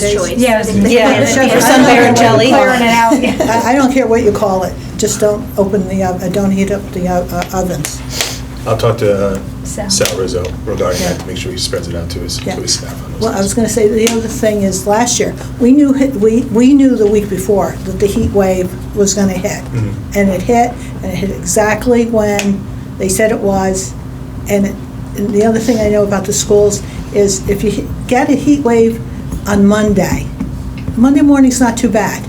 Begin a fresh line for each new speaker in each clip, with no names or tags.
choice.
Yeah,
Yeah,
it's just-
for some Barontelli.
Clearing it out, yeah.
I, I don't care what you call it, just don't open the, ov- uh, don't heat up the uh, uh, ovens.
I'll talk to uh,
So-
Sal Rizzo regarding that,
Yeah.
to make sure he spreads it out to his, to
Yeah.
his staff. on those
Well, I was
things.
gonna say, the other thing is, last year, we knew, hit- we, we knew the week before that the heat wave was gonna hit.
Mhm.
And it hit, and it hit exactly when they said it was. And it- and the other thing I know about the schools is if you he- get a heat wave on Monday, Monday morning's not too bad.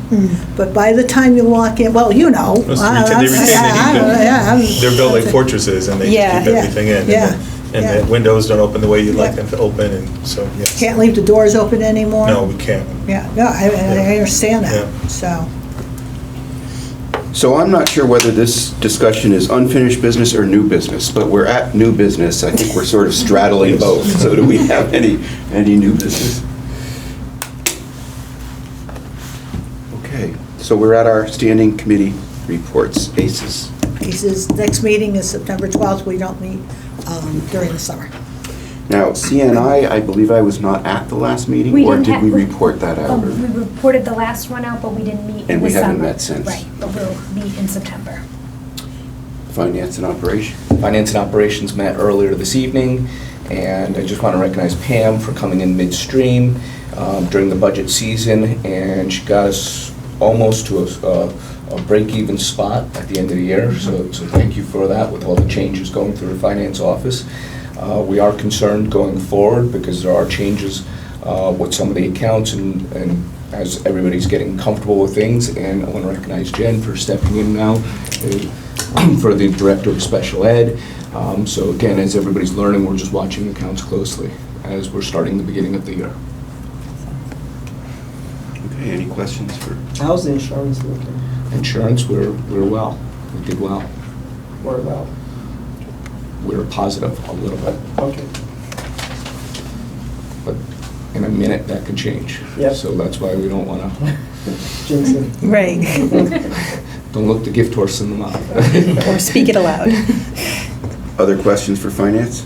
But by the time you walk in, well, you know.
Those
I-
retain-
I-
They retain
I-
the heat.
I- yeah, I'm-
though. They're built like fortresses and they keep
Yeah.
Yeah.
everything in. and the-
Yeah.
And
Yeah.
the windows don't open the way you'd like
Yeah.
them to open and so, yeah.
Can't leave the doors open anymore.
No, we can't.
Yeah, no, I, I understand
Yeah.
that, so.
So I'm not sure whether this discussion is unfinished business or new business, but we're at new business. I think we're sort of straddling both. So do we have any, any new business? Okay, so we're at our standing committee reports, ACES.
He says, next meeting is September 12th, we don't meet um, during the summer.
Now, CNI, I believe I was not at the last meeting?
We
Or
didn't
did
have-
we report that
Oh,
out?
We
or-
reported the last one out, but we didn't meet in the summer.
And we haven't met since.
Right, but we'll meet in September.
Finance and operation?
Finance and Operations met earlier this evening, and I just want to recognize Pam for coming in midstream um, during the budget season, and she got us almost to a- a a break-even spot at the end of the year, so so thank you for that with all the changes going through the finance office. Uh, We are concerned going forward because there are changes uh, with some of the accounts and and as everybody's getting comfortable with things, and I want to recognize Jen for stepping in now uh, for the director of special ed. Um, So again, as everybody's learning, we're just watching the counts closely as we're starting the beginning of the year.
Okay, any questions for?
How's the insurance looking?
Insurance, we're, we're well. We did well.
What about?
We're positive a little bit,
Okay.
but in a minute, that could change.
Yep.
So that's why we don't want to,
Jensen.
Right.
don't look the gift horse in the mouth.
Or speak it aloud.
Other questions for finance?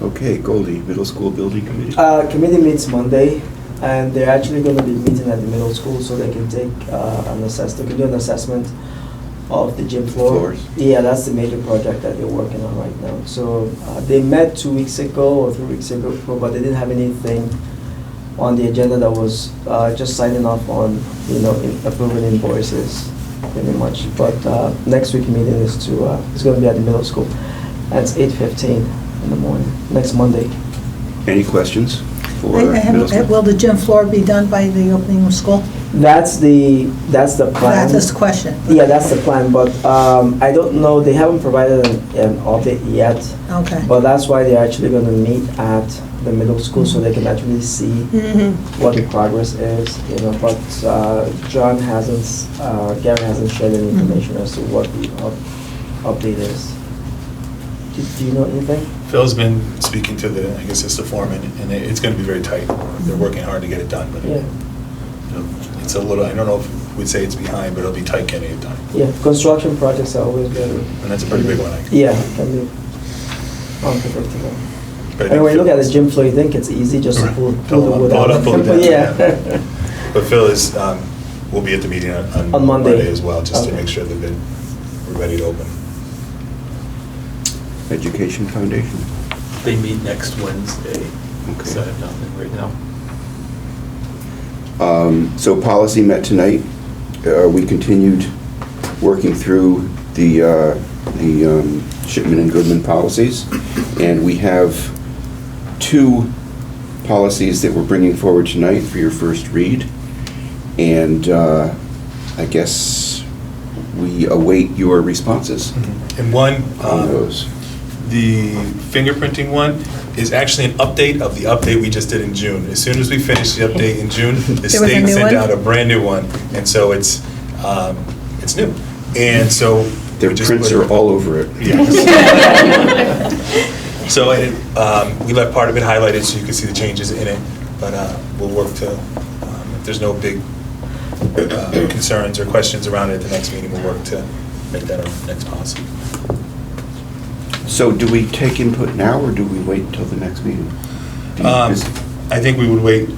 Okay, Goldie, middle school building committee.
Uh, committee meets Monday, and they're actually gonna be meeting at the middle school so they can take, uh, an assess, they can do an assessment of the gym floor.
Floors.
Yeah, that's the major project that they're working on right now. So, uh, they met two weeks ago or three weeks ago, but they didn't have anything on the agenda that was, uh, just signing off on, you know, in- approving invoices, pretty much. But, uh, next week meeting is to, uh, it's gonna be at the middle school. That's eight fifteen in the morning, next Monday.
Any questions for
I- I haven't-
middle school?
Will the gym floor be done by the opening of school?
That's the, that's the plan.
That's the question.
Yeah, that's the plan, but um, I don't know, they haven't provided an an update yet,
Okay.
but that's why they're actually gonna meet at the middle school, so they can actually see
Mm-hmm.
what the progress is, you know, but uh, John hasn't, s- uh, Gary hasn't shared any information as to what the up- update is. Do- Do you know anything?
Phil's been speaking to the, I guess it's the foreman, and it- it's going to be very tight.
Mm-hmm.
They're working hard to get it done, but
Yeah.
you know, it's a little, I don't know if we'd say it's behind, but it'll be tight getting it done.
Yeah, construction projects are always very.
And that's a pretty big one, I guess.
Yeah, can be unpredictable.
But I
And
think
when you look
Phil-
at this gym floor, you think it's easy just to
Right.
pull,
Pull
pull the
up,
wood
pull it
out.
up, pull it down, yeah.
Yeah.
But Phil is, um, will be at the meeting on
On
on
Monday.
Monday as well, just to
Okay.
make sure that they- we're ready to open.
Education Foundation.
They meet next Wednesday, so I
Okay.
have nothing right now.
Um, So policy met tonight. Uh, We continued working through the, uh, the um, Shipman and Goodman policies. And we have two policies that we're bringing forward tonight for your first read. And uh, I guess we await your responses
And one,
on
um,
those.
the fingerprinting one is actually an update of the update we just did in June. As soon as we finished the update in June, the
There was a
state
new one?
sent out a brand-new one, and so it's, um, it's new. And so. we
Their
just
prints
put-
are all over it.
Yes. So it, um, we left part of it highlighted so you can see the changes in it, but uh, we'll work to, um, if there's no big uh, concerns or questions around it at the next meeting, we'll work to make that our next policy.
So do we take input now, or do we wait until the next meeting? Do you-
Um,
is-
I think we would wait